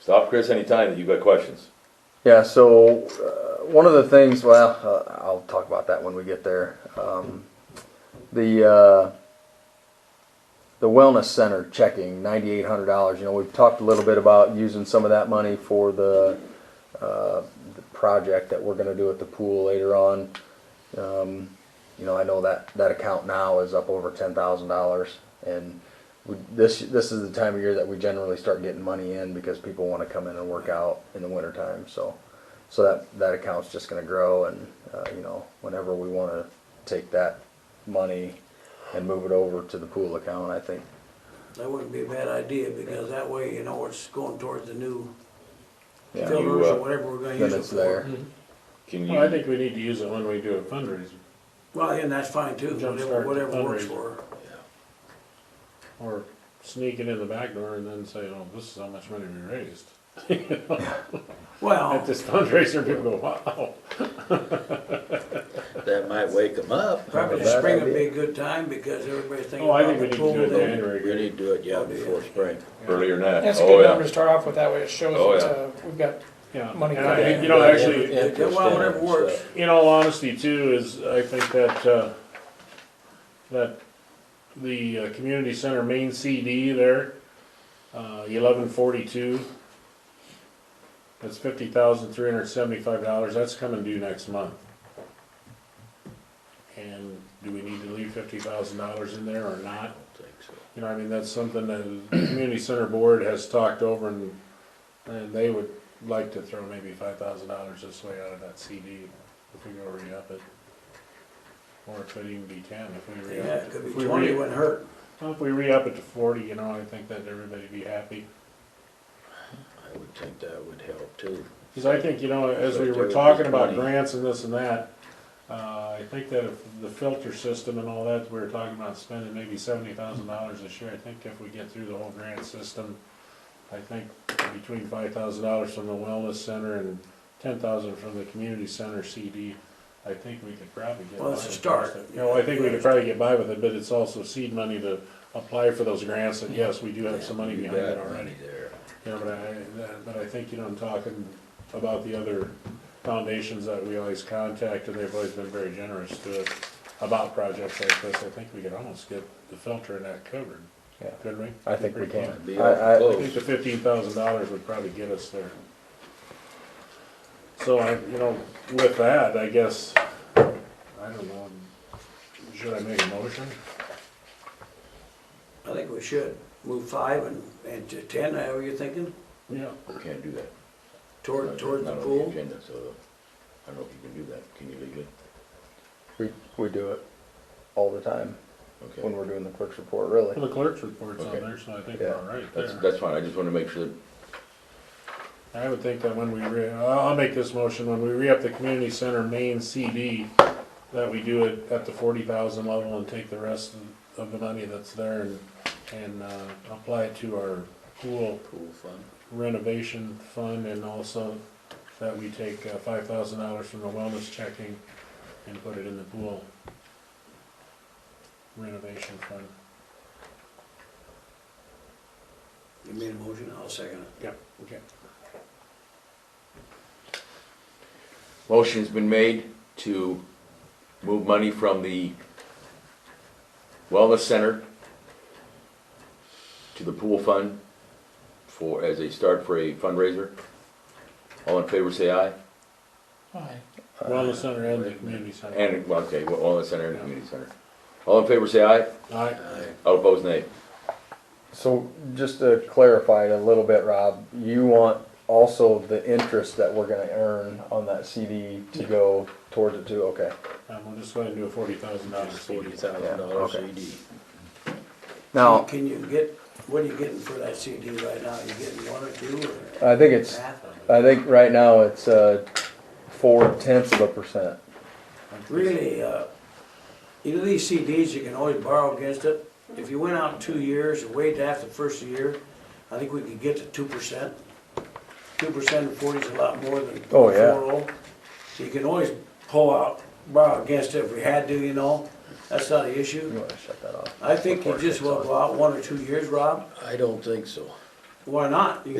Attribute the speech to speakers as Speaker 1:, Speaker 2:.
Speaker 1: Stop Chris anytime that you've got questions.
Speaker 2: Yeah, so uh, one of the things, well, uh, I'll talk about that when we get there. Um, the uh, the wellness center checking ninety eight hundred dollars. You know, we've talked a little bit about using some of that money for the, uh, the project that we're going to do at the pool later on. Um, you know, I know that that account now is up over ten thousand dollars, and we, this this is the time of year that we generally start getting money in because people want to come in and work out in the wintertime. So, so that that account's just going to grow, and uh, you know, whenever we want to take that money and move it over to the pool account, I think
Speaker 3: That wouldn't be a bad idea, because that way, you know, it's going towards the new
Speaker 2: Yeah.
Speaker 1: You,
Speaker 3: filters
Speaker 1: uh,
Speaker 3: or whatever we're gonna
Speaker 2: then
Speaker 3: use it
Speaker 2: it's
Speaker 3: for.
Speaker 2: there.
Speaker 1: Can
Speaker 4: Well, I
Speaker 1: you,
Speaker 4: think we need to use it when we do a fundraiser,
Speaker 3: Well, and that's fine too, whatever,
Speaker 4: Jumpstart the
Speaker 3: whatever works
Speaker 4: fundraiser.
Speaker 3: for.
Speaker 4: or sneak it in the back door and then say, oh, this is how much money we raised. At
Speaker 3: Well,
Speaker 4: this fundraiser, people go, wow.
Speaker 5: That might wake them up.
Speaker 3: probably
Speaker 2: Not a bad
Speaker 3: spring would be
Speaker 2: idea.
Speaker 3: a good time, because everybody's thinking
Speaker 4: Oh, I
Speaker 3: about
Speaker 4: think we need
Speaker 3: the
Speaker 4: to
Speaker 3: pool.
Speaker 4: do it in
Speaker 3: then.
Speaker 4: January.
Speaker 5: We need to do it, yeah, before spring.
Speaker 1: earlier than that?
Speaker 6: That's a
Speaker 1: Oh,
Speaker 6: good number
Speaker 1: yeah.
Speaker 6: to start off with, that way it shows
Speaker 1: Oh,
Speaker 6: that
Speaker 1: yeah.
Speaker 6: uh, we've got,
Speaker 4: Yeah,
Speaker 6: Money
Speaker 4: and I
Speaker 6: back.
Speaker 4: think, you know, actually,
Speaker 5: Interest
Speaker 3: Yeah, well,
Speaker 5: in it
Speaker 3: whatever
Speaker 5: and
Speaker 3: works.
Speaker 5: stuff.
Speaker 4: in all honesty too, is I think that, uh, that the uh, community center main CD there, uh, eleven forty-two, that's fifty thousand three hundred seventy-five dollars, that's coming due next month. And do we need to leave fifty thousand dollars in there or not?
Speaker 5: I don't think so.
Speaker 4: You know, I mean, that's something that the community center board has talked over and, and they would like to throw maybe five thousand dollars this way out of that CD if we go re-up it. Or if it even be ten, if we
Speaker 3: Yeah,
Speaker 4: re-up it.
Speaker 3: it could
Speaker 4: If
Speaker 3: be
Speaker 4: we
Speaker 3: twenty,
Speaker 4: re-
Speaker 3: wouldn't hurt.
Speaker 4: Well, if we re-up it to forty, you know, I think that everybody'd be happy.
Speaker 5: I would think that would help too.
Speaker 4: Cause I think, you know, as
Speaker 5: So
Speaker 4: we
Speaker 5: do it
Speaker 4: were
Speaker 5: with
Speaker 4: talking about
Speaker 5: 20.
Speaker 4: grants and this and that, uh, I think that if the filter system and all that, we were talking about spending maybe seventy thousand dollars this year, I think if we get through the whole grant system, I think between five thousand dollars from the wellness center and ten thousand from the community center CD, I think we could probably get by.
Speaker 3: Well, it's a
Speaker 4: with
Speaker 3: start.
Speaker 4: it. You know, I think we could probably get by with it, but it's also seed money to apply for those grants, and yes, we do have some money
Speaker 5: You
Speaker 4: behind it
Speaker 5: got
Speaker 4: already.
Speaker 5: money There.
Speaker 4: Yeah, but I, that- but I think, you know, I'm talking about the other foundations that we always contact, and they've always been very generous to us about projects like this, I think we could almost get the filter and that covered,
Speaker 2: Yeah.
Speaker 4: couldn't we?
Speaker 2: I think we
Speaker 4: Pretty
Speaker 2: can.
Speaker 4: close.
Speaker 5: Be
Speaker 2: I- I-
Speaker 4: I think
Speaker 5: close.
Speaker 4: the fifteen thousand dollars would probably get us there. So I, you know, with that, I guess, I don't know, should I make a motion?
Speaker 3: I think we should move five and, and to ten, however you're thinking,
Speaker 4: Yeah.
Speaker 5: We Can't do that.
Speaker 3: toward,
Speaker 5: Not-
Speaker 3: toward the
Speaker 5: not on
Speaker 3: pool.
Speaker 5: agenda, so I don't know if you can do that. Can you leave it?
Speaker 2: We we do it all the time when
Speaker 5: Okay.
Speaker 2: we're doing the clerk's report. Really,
Speaker 4: The clerk's report's on
Speaker 5: Okay.
Speaker 4: there, so I think we're
Speaker 2: Yeah.
Speaker 4: all right
Speaker 5: That's,
Speaker 4: there.
Speaker 5: that's fine. I just wanna make sure.
Speaker 4: I would think that when we re, I'll, I'll make this motion, when we re-up the community center main CD, that we do it at the forty thousand level and take the rest of, of the money that's there and, and, uh, apply it to our pool
Speaker 5: Pool fund.
Speaker 4: renovation fund and also that we take uh, five thousand dollars from the wellness checking and put it in the pool renovation fund.
Speaker 3: You made a motion, I'll second it.
Speaker 4: Yeah, okay.
Speaker 1: Motion's been made to move money from the wellness center to the pool fund for, as a start for a fundraiser. All in favor, say aye.
Speaker 6: aye.
Speaker 5: Uh,
Speaker 4: Wellness center and the community center.
Speaker 1: And, well, okay, wellness center and community center. All in favor, say aye.
Speaker 4: Aye.
Speaker 1: All opposed, nay.
Speaker 2: so just to clarify it a little bit, Rob, you want also the interest that we're going to earn on that CD to go towards it too. Okay.
Speaker 4: Um, we'll just go ahead and do a forty thousand dollars
Speaker 5: It's forty thousand dollars E
Speaker 2: Yeah, okay.
Speaker 5: CD.
Speaker 2: Now
Speaker 3: Can you get, what are you getting for that CD right now? You getting one or two or
Speaker 2: I think it's
Speaker 3: half of it?
Speaker 2: I think right now it's uh, four tenths of a percent.
Speaker 3: Really, uh, you know, these CDs, you can always borrow against it. If you went out two years and waited after the first year, I think we could get to two percent. Two percent of forty is a lot more than
Speaker 2: Oh,
Speaker 3: four
Speaker 2: yeah.
Speaker 3: oh. So you can always pull out, borrow against it if we had to, you know, that's not an
Speaker 2: You
Speaker 3: issue.
Speaker 2: want to shut that off?
Speaker 3: I think you
Speaker 2: Before it
Speaker 3: just
Speaker 2: kicks
Speaker 3: will
Speaker 2: off.
Speaker 3: go out one or two years, Rob,
Speaker 5: I don't think so.
Speaker 3: why not? You